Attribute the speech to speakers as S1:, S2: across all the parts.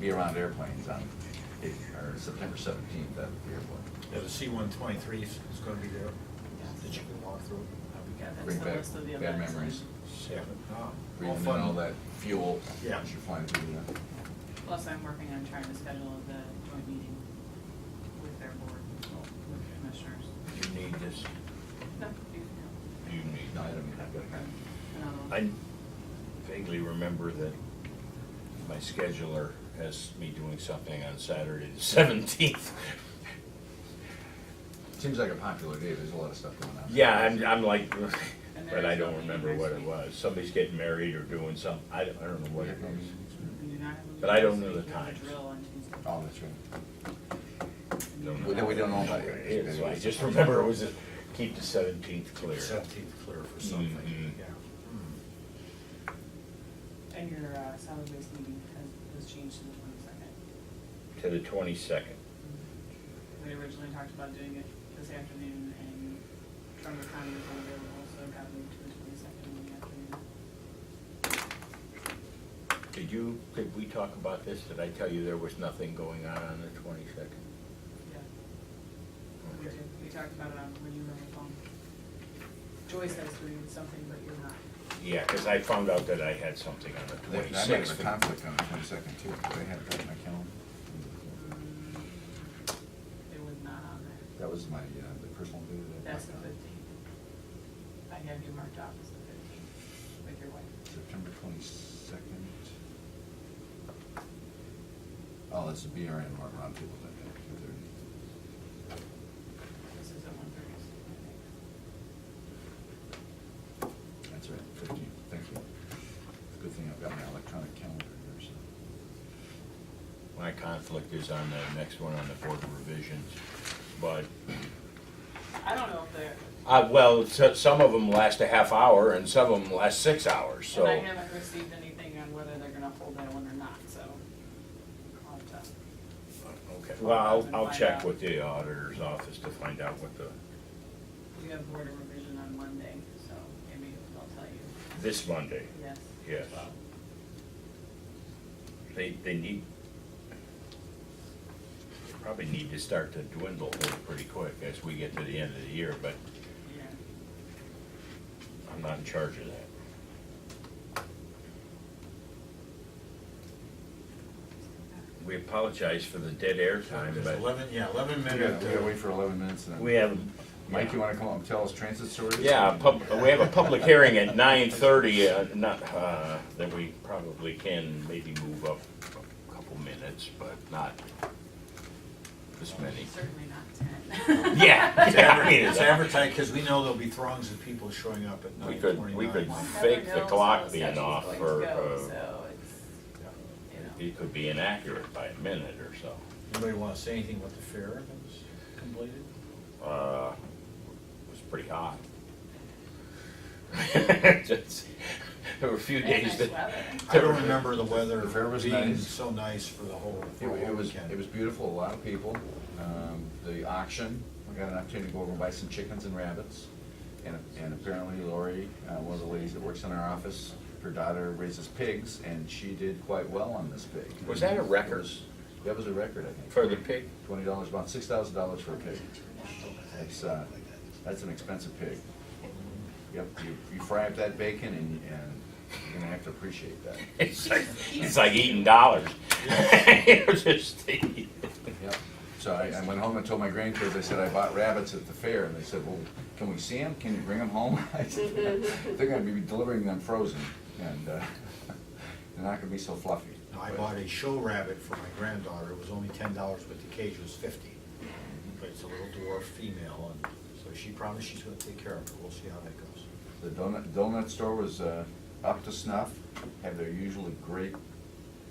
S1: be around airplanes on, eh, or September seventeenth at the airport.
S2: Yeah, the C one twenty-three is gonna be there, that you can walk through.
S3: Yeah, that's
S1: Bring
S3: the
S1: back
S3: list of the
S1: bad
S3: events.
S1: memories,
S2: Seven, oh, all
S1: breathing in all
S2: fun.
S1: that fuel
S2: Yeah.
S1: as you're flying through the,
S3: Plus, I'm working on trying to schedule the joint meeting with their board, with the commissioners.
S4: You need this,
S3: No, you can
S4: you need,
S1: no, I
S4: that.
S1: don't mean, I've got kind
S3: have-
S4: I vaguely remember that my scheduler has me doing something on Saturday the seventeenth.
S1: of, seems like a popular day, there's a lot of stuff going on.
S4: Yeah, I'm, I'm like,
S3: And
S4: but I
S3: there's
S4: don't
S3: something
S4: remember
S3: next
S4: what it
S3: week.
S4: was. Somebody's getting married or doing some, I don't, I don't know what it is.
S3: We do not have a
S4: But I don't
S3: meeting
S4: know
S3: this
S4: the
S3: week. We have a
S4: times.
S3: Drill on Tuesday.
S1: Oh, that's right.
S4: Don't
S1: We
S4: know.
S1: don't, we don't know
S4: What
S1: about
S4: it is, so I just remember it was, a- keep the seventeenth clear.
S2: Seventeenth clear for something,
S4: Mhm.
S2: yeah.
S3: And your uh, solid waste meeting has, was changed to the twenty-second.
S4: To the twenty-second.
S3: We originally talked about doing it this afternoon, and Trumbull County was unavailable, so it got moved to the twenty-second in the afternoon.
S4: Did you, did we talk about this? Did I tell you there was nothing going on on the twenty-second?
S3: Yeah, we
S4: Okay.
S3: did, we talked about it on, when you were on the phone. Joy says doing something, but you're not.
S4: Yeah, because I found out that I had something on the
S1: That that might have a
S4: twenty-sixth.
S1: conflict on the twenty-second too, because I had it on my calendar.
S3: Mm-hmm. It was not on there.
S1: That was my, uh, the personal day that I
S3: That's
S1: marked on,
S3: the fifteenth. I have you marked off as the fifteenth with your wife.
S1: September twenty-second. Oh, that's the BRN, Martin Round Table, that,
S3: This is at one thirty, I
S1: that, that's right, fifteen, thank you. Good thing I've got my electronic calendar here, so.
S4: My conflict is on the next one on the board of revisions, but,
S3: think. I don't know if they're,
S4: uh, well, so- some of them last a half hour and some of them last six hours, so.
S3: and I haven't received anything on whether they're gonna hold that one or not, so. I'll have to-
S4: Okay, well, I'll,
S3: And
S4: I'll
S3: find
S4: check
S3: out.
S4: with the auditor's office to find out what the,
S3: We have board of revision on Monday, so maybe they'll tell you,
S4: this Monday,
S3: yes.
S4: yes. They, they need, they probably need to start to dwindle here pretty quick as we get to the end of the year, but
S3: Yeah.
S4: I'm not in charge of that. We apologize for the dead air time,
S2: There's
S4: but
S2: eleven, Hmm. yeah, eleven
S1: We gotta,
S2: minute.
S1: we gotta
S2: uh,
S1: wait for eleven minutes and then.
S4: we have,
S1: Mike, you wanna come up and tell us transit stories?
S4: yeah, pub, we have a public hearing at nine thirty, uh, not, uh, that we probably can maybe move up a couple minutes, but not this many.
S3: Certainly not ten.
S4: Yeah.
S2: It's adver- it's advertised, because we know there'll be throngs of people showing up at
S4: We
S2: nine
S4: could,
S2: twenty-nine.
S4: we could
S3: We'll never
S4: fake the
S3: know
S4: clock
S3: until
S4: being
S3: session's
S4: off
S3: going to
S4: or,
S3: go,
S4: uh,
S3: So it's, you know,
S4: it could be inaccurate by a minute or so.
S2: Anybody want to say anything about the fair that was completed?
S4: Uh, it was pretty hot. Just- There were a few
S3: and
S4: days
S3: nice
S4: that.
S3: weather.
S2: I don't remember the weather
S1: The fair was
S2: being
S1: nice.
S2: so nice for the whole,
S1: It
S2: for
S1: wa-
S2: the whole
S1: It was,
S2: weekend.
S1: it was beautiful, a lot of people. Um, The auction, we got an opportunity to go over and buy some chickens and rabbits. And and apparently Lori, uh, one of the ladies that works in our office, her daughter raises pigs, and she did quite well on this pig.
S4: Was that a record?
S1: It was- That was a record, I think.
S4: For the pig?
S1: Twenty dollars, about six thousand dollars for a pig. That's, uh, that's an expensive pig. Yep, you you fry up that bacon and and you're gonna have to appreciate that.
S4: It's like, it's like eating dollars. It was just-
S1: Yep. So I, I went home and told my grandkids, I said, I bought rabbits at the fair, and they said, well, can we see them? Can you bring them home? I said, They're gonna be delivering them frozen, and, uh, they're not gonna be so fluffy.
S2: I bought a show rabbit for my granddaughter, it was only ten dollars, but the cage was fifty. But it's a little dwarf female, and so she promised she's gonna take care of her, we'll see how that goes.
S1: The donut, donut store was, uh, up to snuff, had their usually great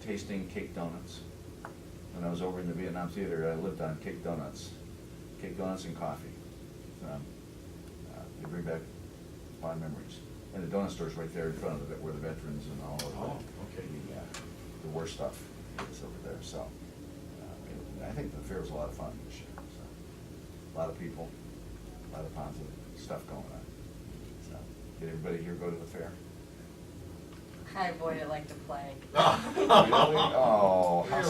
S1: tasting cake donuts. When I was over in the Vietnam Theater, I lived on cake donuts, cake donuts and coffee. Um, uh, They bring back a lot of memories. And the donut store's right there in front of it, where the veterans and all of
S2: Oh,
S1: the,
S2: okay.
S1: the, uh, the war stuff is over there, so. uh, it- I think the fair was a lot of fun this year, so. A lot of people, a lot of positive stuff going on, so. Did everybody here go to the fair?
S5: Hi, boy, I like to play.
S1: Really? Oh, how
S2: Really?